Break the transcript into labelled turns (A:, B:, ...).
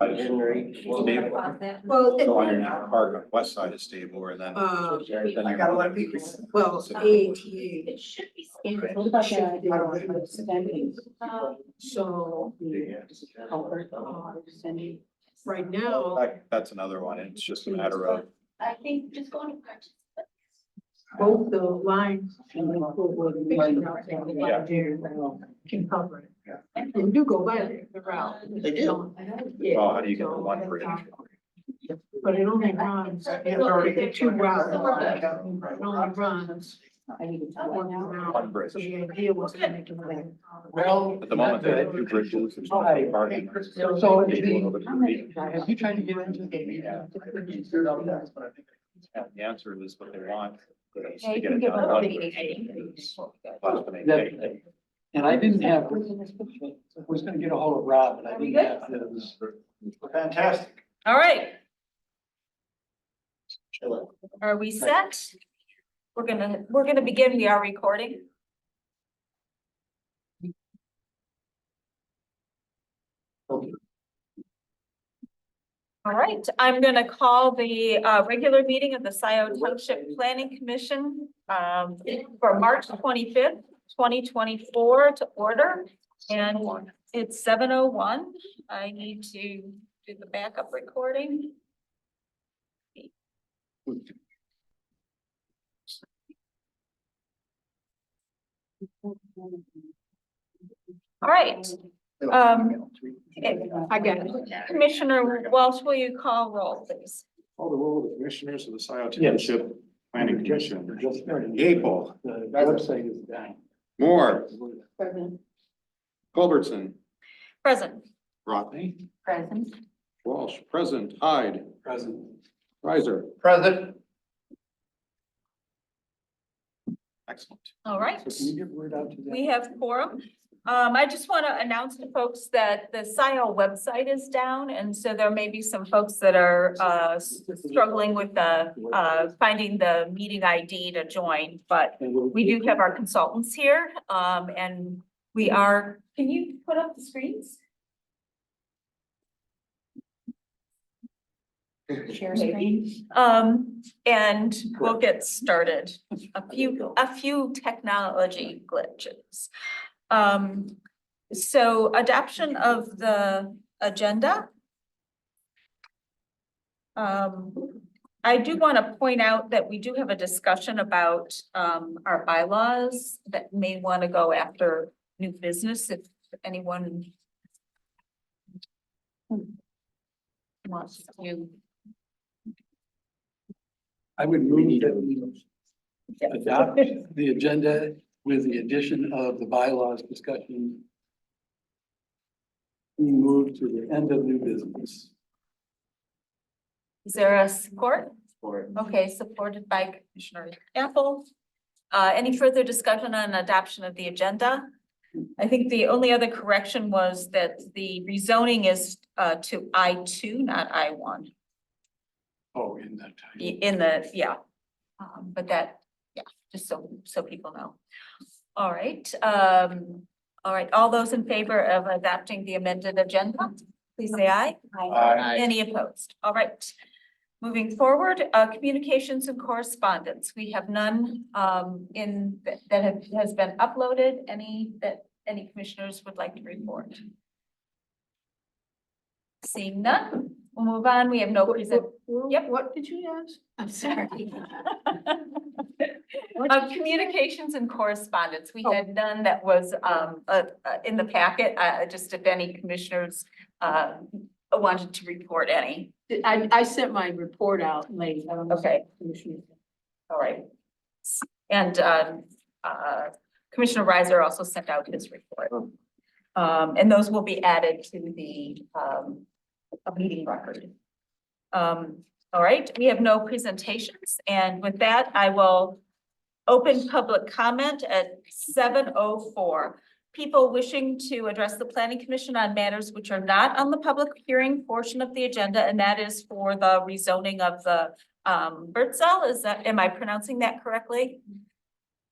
A: I just-
B: Henry.
A: Well, David-
C: Well, it-
A: So on your now, hard on the west side is stable and then.
C: um,
A: then
D: I
A: you're-
D: got a lot of people.
C: well, ATA,
E: It should be.
D: What about that? You don't want to send me.
C: so
A: Yeah.
D: Comfort, uh, send me.
C: right now,
A: That, that's another one. It's just a matter of,
E: I think just going to purchase.
C: both the lines and the pool will be fixed out there.
A: Yeah.
C: Can cover it.
E: And
C: And do go by there, the route.
D: They do.
C: Yeah,
A: well, how do you get to one bridge?
C: but it only runs,
D: It's already-
C: there are two routes. It only
D: Right.
C: runs
D: Oh, I need to tell
C: one
D: you now.
A: One
C: round.
A: bridge.
C: So the idea was to make it like.
F: Well.
A: At the moment, they have two bridges. there's
D: Oh,
A: no parking.
F: Oh, So it'd be-
D: How many?
F: Have you tried to get into the
A: Yeah. The answer is what they want. but it's to
E: Yeah, you
A: get
E: can
A: it
E: give
A: done
E: up
A: one
E: the
A: bridge.
E: ATA.
A: Plus the main
F: That-
A: gate.
F: And I didn't have, I was gonna get a hold of Rob, but I
E: Are we
F: didn't have his. Fantastic.
G: All right. Are we set? We're gonna, we're gonna begin. We are recording.
F: Okay.
G: All right, I'm gonna call the uh regular meeting of the Scioto Township Planning Commission um for March twenty-fifth, twenty twenty-four to order. And it's seven oh one. I need to do the backup recording. All right, Um,
C: I got it.
G: Commissioner Welch, will you call roll, please?
H: Call the roll of the commissioners of the Scioto
F: Yes.
H: Township Planning Commission.
F: Just started.
H: Gable,
F: The website is down.
H: Moore,
D: Present.
H: Culbertson,
G: Present.
H: Rodney,
E: Present.
H: Walsh, present, Hyde,
F: Present.
H: Riser.
F: Present.
A: Excellent.
G: All right.
F: So can you get word out to them?
G: We have quorum. Um, I just want to announce to folks that the SIO website is down, and so there may be some folks that are, uh, struggling with the, uh, finding the meeting ID to join, but
F: And we'll-
G: we do have our consultants here, um, and we are, can you put up the screens?
D: Share screen.
G: Um, and we'll get started. A few, a few technology glitches. Um, so adoption of the agenda. Um, I do want to point out that we do have a discussion about, um, our bylaws that may want to go after new business if anyone wants to
F: I would move that we adopt the agenda with the addition of the bylaws discussion. We move to the end of new business.
G: Is there a support? Okay, supported by Commissioner Apple. Uh, any further discussion on adoption of the agenda? I think the only other correction was that the rezoning is uh to I two, not I one,
F: Oh, in that time.
G: in the, yeah. Um, but that, yeah, just so, so people know. All right, um, all right, all those in favor of adopting the amended agenda, please say aye. Any opposed? All right. Moving forward, uh, communications and correspondence. We have none, um, in, that have, has been uploaded. Any that, any commissioners would like to report? Seeing none, we'll move on. We have no present. Yep.
C: What did you ask?
E: I'm sorry.
G: Of Uh, communications and correspondence, we had none that was um uh uh, in the packet, uh just if any commissioners uh wanted to report any.
C: I, I sent my report out late. I don't know if
G: Okay.
C: Commissioner-
G: All right. And um, uh, Commissioner Reiser also sent out his report. Um, and those will be added to the um, a meeting record. Um, all right, we have no presentations, and with that, I will open public comment at seven oh four. People wishing to address the planning commission on matters which are not on the public hearing portion of the agenda, and that is for the rezoning of the um, Bertzel, is that, am I pronouncing that correctly?